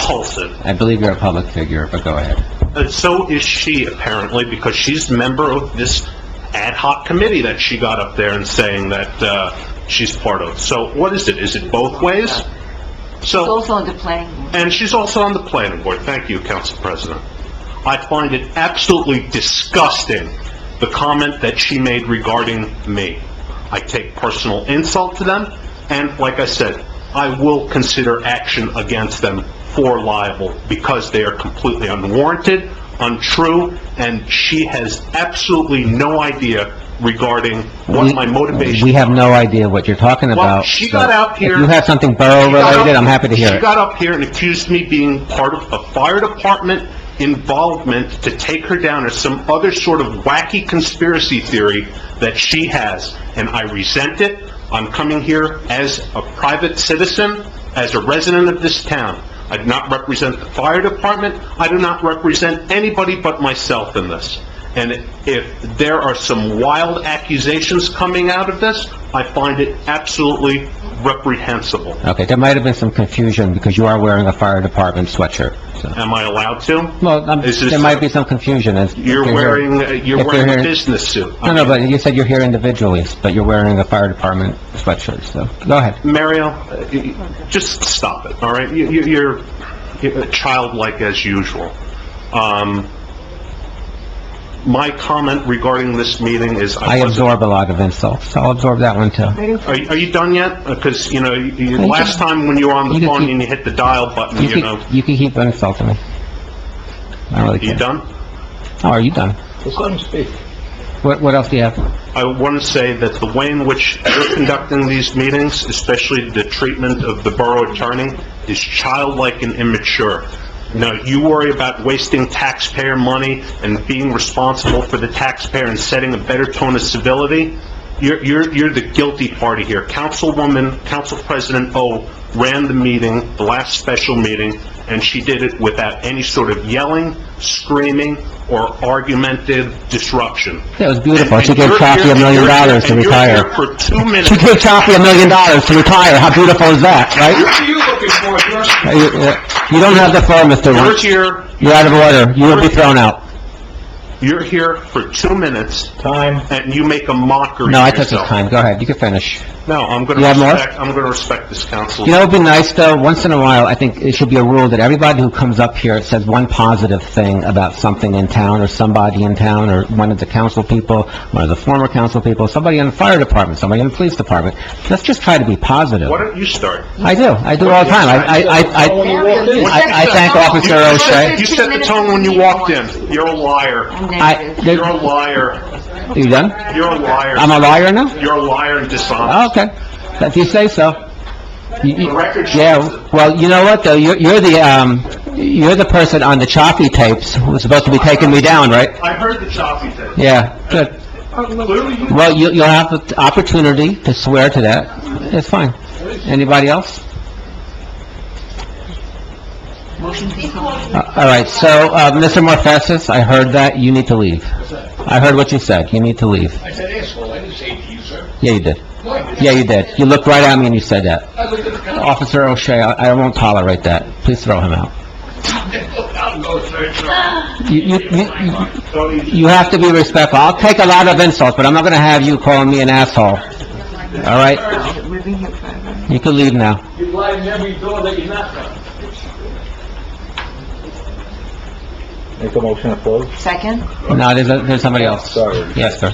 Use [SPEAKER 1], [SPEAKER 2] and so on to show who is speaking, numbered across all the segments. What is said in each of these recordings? [SPEAKER 1] repulsive.
[SPEAKER 2] I believe you're a public figure, but go ahead.
[SPEAKER 1] And so is she, apparently, because she's a member of this ad hoc committee that she got up there and saying that, uh, she's part of. So what is it? Is it both ways?
[SPEAKER 3] It's
[SPEAKER 1] So,
[SPEAKER 3] also on the planning board.
[SPEAKER 1] and she's also on the planning board. Thank you, Council President. I find it absolutely disgusting, the comment that she made regarding me. I take personal insult to them, and like I said, I will consider action against them for libel because they are completely unwarranted, untrue, and she has absolutely no idea regarding what my motivation.
[SPEAKER 2] We have no idea what you're talking about.
[SPEAKER 1] Well, she
[SPEAKER 2] so
[SPEAKER 1] got out here-
[SPEAKER 2] If you have something borough-related, I'm happy to hear
[SPEAKER 1] She
[SPEAKER 2] it.
[SPEAKER 1] got up here and accused me being part of a fire department involvement to take her down as some other sort of wacky conspiracy theory that she has, and I resent it. I'm coming here as a private citizen, as a resident of this town. I do not represent the fire department. I do not represent anybody but myself in this. And if there are some wild accusations coming out of this, I find it absolutely reprehensible.
[SPEAKER 2] Okay, there might have been some confusion because you are wearing a fire department sweatshirt, so...
[SPEAKER 1] Am I allowed to?
[SPEAKER 2] Well, I'm-
[SPEAKER 1] This is-
[SPEAKER 2] there might be some confusion as...
[SPEAKER 1] You're
[SPEAKER 2] if here-
[SPEAKER 1] wearing, uh, you're
[SPEAKER 2] if
[SPEAKER 1] wearing a
[SPEAKER 2] here-
[SPEAKER 1] business suit.
[SPEAKER 2] No, no, but you said you're here individually, but you're wearing a fire department sweatshirt, so go ahead.
[SPEAKER 1] Mario, uh, y- y- just stop it, all right? You- you- You're you're childlike as usual. Um, My comment regarding this meeting is
[SPEAKER 2] I
[SPEAKER 1] I wasn't...
[SPEAKER 2] absorb a lot of insults, so I'll absorb that one too.
[SPEAKER 1] Are you- are you done yet? Because, you know, you- you-
[SPEAKER 2] you.
[SPEAKER 1] last time when you were on
[SPEAKER 2] You
[SPEAKER 1] the
[SPEAKER 2] can
[SPEAKER 1] phone
[SPEAKER 2] keep-
[SPEAKER 1] and you hit the dial button,
[SPEAKER 2] You
[SPEAKER 1] you know,
[SPEAKER 2] can, you can keep insulting me. I don't really
[SPEAKER 1] you
[SPEAKER 2] care.
[SPEAKER 1] done?
[SPEAKER 2] Oh, are you done? What, what else do you have?
[SPEAKER 1] I want to say that the way in which you're conducting these meetings, especially the treatment of the borough attorney, is childlike and immature. Now, you worry about wasting taxpayer money and being responsible for the taxpayer and setting a better tone of civility. You're, you're, you're the guilty party here. Councilwoman, Council President O ran the meeting, the last special meeting, and she did it without any sort of yelling, screaming, or argumentative disruption.
[SPEAKER 2] That was beautiful.
[SPEAKER 1] And-
[SPEAKER 2] She
[SPEAKER 1] and
[SPEAKER 2] gave
[SPEAKER 1] you're
[SPEAKER 2] Chaffee
[SPEAKER 1] here-
[SPEAKER 2] a million
[SPEAKER 1] and you're-
[SPEAKER 2] dollars to
[SPEAKER 1] and you're here
[SPEAKER 2] retire.
[SPEAKER 1] for two minutes.
[SPEAKER 2] She gave Chaffee a million dollars to retire. How beautiful is that, right?
[SPEAKER 4] What are you looking for, George?
[SPEAKER 2] Uh, You uh, you don't have the floor, Mr.
[SPEAKER 1] You're
[SPEAKER 2] Wunsch.
[SPEAKER 1] here,
[SPEAKER 2] You're out of order. You will be thrown out.
[SPEAKER 1] you're here for two minutes,
[SPEAKER 4] Time.
[SPEAKER 1] and you make a mockery
[SPEAKER 2] No, I
[SPEAKER 1] of
[SPEAKER 2] took your
[SPEAKER 1] yourself.
[SPEAKER 2] time. Go ahead. You can finish.
[SPEAKER 1] No, I'm gonna
[SPEAKER 2] You have more?
[SPEAKER 1] respect, I'm gonna respect this council.
[SPEAKER 2] You know, it'd be nice, though, once in a while, I think it should be a rule that everybody who comes up here says one positive thing about something in town, or somebody in town, or one of the council people, one of the former council people, somebody in the fire department, somebody in the police department. Let's just try to be positive.
[SPEAKER 1] Why don't you start?
[SPEAKER 2] I do, I do all the time. I, I, I- I, I- I thank Officer O'Shea.
[SPEAKER 1] You set the tone when you walked in. You're a liar.
[SPEAKER 2] I,
[SPEAKER 3] Negative.
[SPEAKER 1] You're a
[SPEAKER 2] there-
[SPEAKER 1] liar.
[SPEAKER 2] you done?
[SPEAKER 1] You're a
[SPEAKER 2] I'm
[SPEAKER 1] liar.
[SPEAKER 2] a liar now?
[SPEAKER 1] You're a liar and dishonest.
[SPEAKER 2] Oh, Okay, if you say so. You- you-
[SPEAKER 1] The record shows
[SPEAKER 2] Yeah, well, you know what, though, you're, you're the, um, you're the person on the choppy tapes who was supposed to be taking me down, right?
[SPEAKER 1] I heard the choppy thing.
[SPEAKER 2] Yeah, good.
[SPEAKER 1] Clearly, you-
[SPEAKER 2] Well, you, you'll have the opportunity to swear to that. It's fine. Anybody else? Uh, All right, so, uh, Mr. Morfesis, I heard that, you need to leave. I heard what you said, you need to leave.
[SPEAKER 4] I said asshole, I didn't say it to you, sir.
[SPEAKER 2] Yeah, you did.
[SPEAKER 4] No, I didn't.
[SPEAKER 2] Yeah, you did. You looked right at me and you said that.
[SPEAKER 4] I looked at the cop.
[SPEAKER 2] Officer O'Shea, I I won't tolerate that. Please throw him out.
[SPEAKER 4] I'll go, sir, sir.
[SPEAKER 2] You, you, you-
[SPEAKER 1] don't you-
[SPEAKER 2] you have to be respectful. I'll take a lot of insults, but I'm not gonna have you calling me an asshole. All right?
[SPEAKER 3] We've been here forever.
[SPEAKER 2] You can leave now.
[SPEAKER 4] You lie in every door that you knock on.
[SPEAKER 5] Make a motion to close?
[SPEAKER 3] Second?
[SPEAKER 2] No, there's, a- there's somebody else.
[SPEAKER 5] Sorry.
[SPEAKER 2] Yes, sir.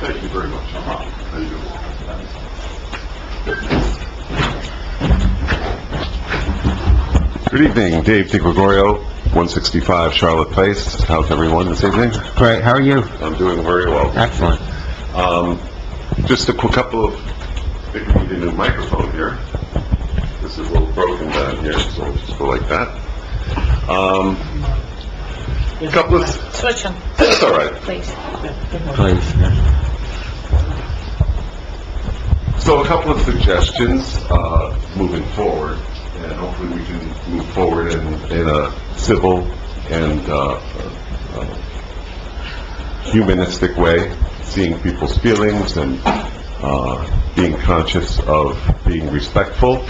[SPEAKER 1] Thank you very much. How you doing?
[SPEAKER 6] Good evening, Dave DiGregorio, 165 Charlotte Place. How's everyone this evening?
[SPEAKER 2] Great, how are you?
[SPEAKER 6] I'm doing very well.
[SPEAKER 2] Excellent.
[SPEAKER 6] Um, Just a quick couple of, I think we need a new microphone here. This is a little broken down here, so we'll just go like that. Um, Couple of... Switch them. That's all right.
[SPEAKER 2] Please.
[SPEAKER 6] So a couple of suggestions, uh, moving forward, and hopefully we can move forward in, in a civil and, uh, uh, humanistic way, seeing people's feelings and uh, being conscious of being respectful